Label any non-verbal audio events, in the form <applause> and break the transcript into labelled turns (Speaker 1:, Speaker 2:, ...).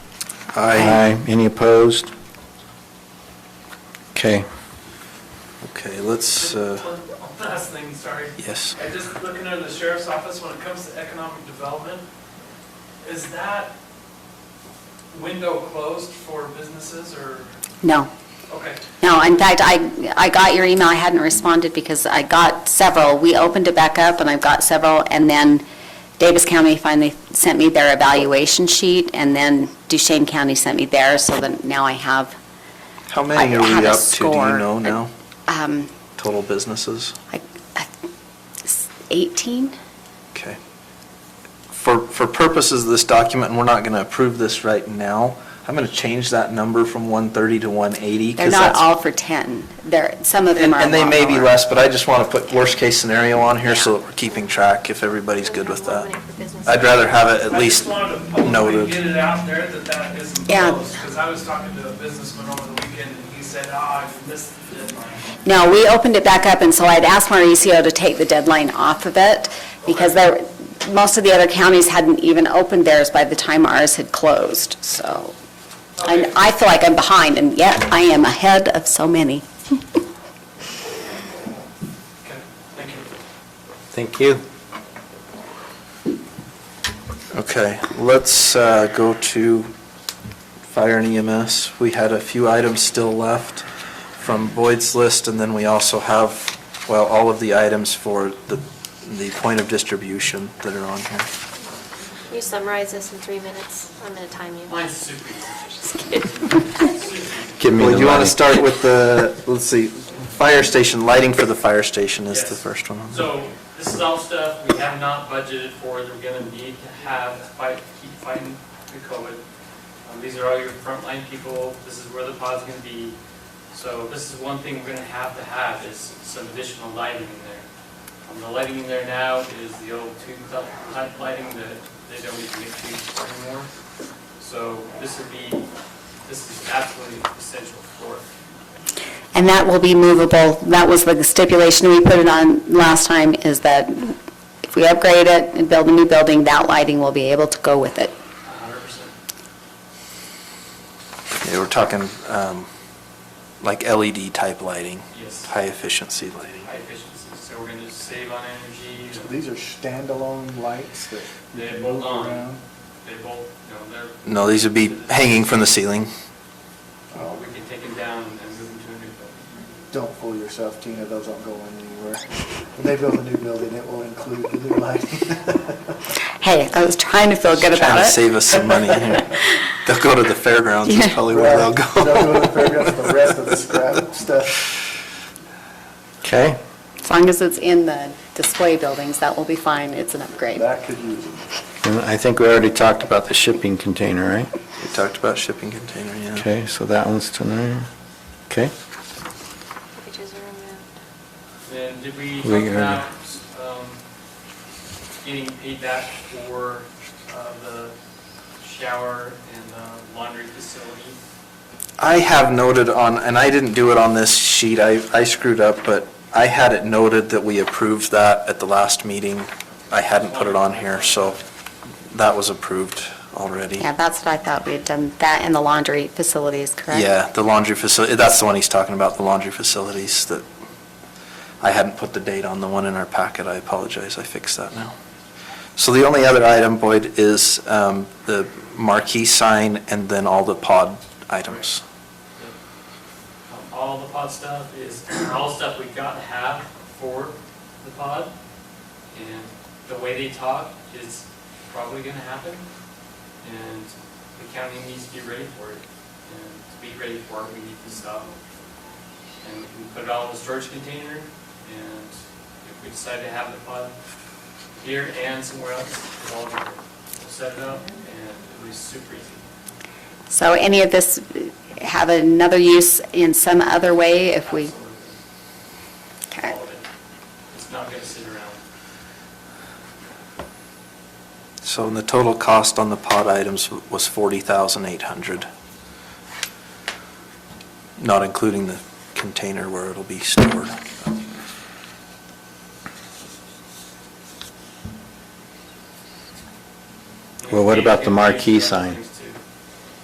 Speaker 1: Aye.
Speaker 2: Any opposed? Okay.
Speaker 1: Okay, let's, uh,
Speaker 3: One- one Last thing, sorry.
Speaker 1: yes.
Speaker 3: I just looking at the sheriff's office, when it comes to economic development, is that window closed for businesses or,
Speaker 4: No,
Speaker 3: okay,
Speaker 4: no, in fact, I, I got your email, I hadn't responded because I got several. We opened it back up and I've got several, and then Davis County finally sent me their evaluation sheet, and then Duchesne County sent me theirs, so that now I have,
Speaker 1: How many
Speaker 4: I
Speaker 1: are
Speaker 4: have
Speaker 1: we
Speaker 4: a
Speaker 1: up to, do you
Speaker 4: score.
Speaker 1: know now?
Speaker 4: um,
Speaker 1: Total businesses?
Speaker 4: like, uh, 18?
Speaker 1: Okay. For, for purposes of this document, and we're not going to approve this right now, I'm going to change that number from 130 to 180. 'cause
Speaker 4: They're not
Speaker 1: that's-
Speaker 4: all for 10. They're, some of them
Speaker 1: And
Speaker 4: are a
Speaker 1: and they
Speaker 4: lot
Speaker 1: may be
Speaker 4: lower.
Speaker 1: less, but I just want to put worst-case scenario on here so that we're keeping track if everybody's good with that. I'd rather have it at
Speaker 3: I just
Speaker 1: least
Speaker 3: wanted to publicly
Speaker 1: noted.
Speaker 3: get it out there that that isn't
Speaker 4: Yeah.
Speaker 3: closed. Because I was talking to a businessman over the weekend and he said, ah, I missed the deadline.
Speaker 4: No, we opened it back up, and so I'd asked Mauricio to take the deadline off of it, because there, most of the other counties hadn't even opened theirs by the time ours had closed, so. And
Speaker 3: Okay.
Speaker 4: I feel like I'm behind, and yet I am ahead of so many.
Speaker 3: Okay, thank you.
Speaker 5: Thank you.
Speaker 1: Okay, let's uh, go to fire and EMS. We had a few items still left from Boyd's list, and then we also have, well, all of the items for the, the point of distribution that are on here.
Speaker 6: You summarize this in three minutes. I'm going to time you.
Speaker 3: Mine's super easy.
Speaker 5: Give me
Speaker 1: Well,
Speaker 5: the
Speaker 1: you want to
Speaker 5: money.
Speaker 1: start with the, let's see, fire station, lighting for the fire station is the
Speaker 7: Yes.
Speaker 1: first one.
Speaker 7: So this is all stuff we have not budgeted for that we're gonna need to have to fight, keep fighting the COVID. Um, These are all your frontline people, this is where the pod's gonna be. So this is one thing we're gonna have to have is some additional lighting in there. Um, The lighting in there now is the old tube type type lighting that they don't even get tubes anymore. So this would be, this is absolutely essential for it.
Speaker 4: And that will be movable, that was the stipulation we put it on last time, is that if we upgrade it and build a new building, that lighting will be able to go with it.
Speaker 7: hundred percent.
Speaker 1: Yeah, we're talking um, like LED type lighting,
Speaker 7: Yes.
Speaker 1: high efficiency lighting.
Speaker 7: High efficiency, so we're gonna save on energy.
Speaker 8: So these are standalone lights that
Speaker 7: They
Speaker 8: move
Speaker 7: bolt on.
Speaker 8: around?
Speaker 7: They bolt, you know, they're,
Speaker 1: No, these would be hanging from the ceiling.
Speaker 8: Oh,
Speaker 7: we can take them down and move them to a new building.
Speaker 8: Don't fool yourself, Tina, those aren't going anywhere. When they build a new building, it will include the new lighting.
Speaker 4: Hey, I was trying to feel good about
Speaker 1: Trying to
Speaker 4: it.
Speaker 1: save us some money
Speaker 4: <laughs>
Speaker 1: here. They'll go to the fairgrounds, is
Speaker 4: Yeah.
Speaker 1: probably where they'll go. <laughs>
Speaker 8: They'll go to the fairgrounds, the rest of the scrap stuff.
Speaker 2: Okay.
Speaker 4: As long as it's in the display buildings, that will be fine, it's an upgrade.
Speaker 8: That could use it.
Speaker 2: And I think we already talked about the shipping container, right?
Speaker 1: We talked about shipping container, yeah.
Speaker 2: Okay, so that one's tonight. Okay.
Speaker 6: Packages are removed.
Speaker 7: Then did we
Speaker 2: We
Speaker 7: talk
Speaker 2: are-
Speaker 7: about, um, getting paid back for, uh, the shower and uh, laundry facility?
Speaker 1: I have noted on, and I didn't do it on this sheet, I, I screwed up, but I had it noted that we approved that at the last meeting. I hadn't put it on here, so that was approved already.
Speaker 4: Yeah, that's what I thought, we had done that in the laundry facilities, correct?
Speaker 1: Yeah, the laundry facility, that's the one he's talking about, the laundry facilities that, I hadn't put the date on the one in our packet, I apologize, I fixed that now. So the only other item, Boyd, is um, the marquee sign and then all the pod items.
Speaker 7: Um, All the pod stuff is, <clears throat> all stuff we got to have for the pod. And the way they talk is probably gonna happen. And the county needs to be ready for it. And to be ready for it, we need to stop. And we can put it all in a storage container. And if we decide to have the pod here and somewhere else, it's all good. We'll set it up and it'll be super easy.
Speaker 4: So any of this have another use in some other way if we,
Speaker 7: Absolutely.
Speaker 4: okay.
Speaker 7: All of it. It's not gonna sit around.
Speaker 1: So the total cost on the pod items was 40,800. Not including the container where it'll be stored.
Speaker 2: Well, what about the marquee sign?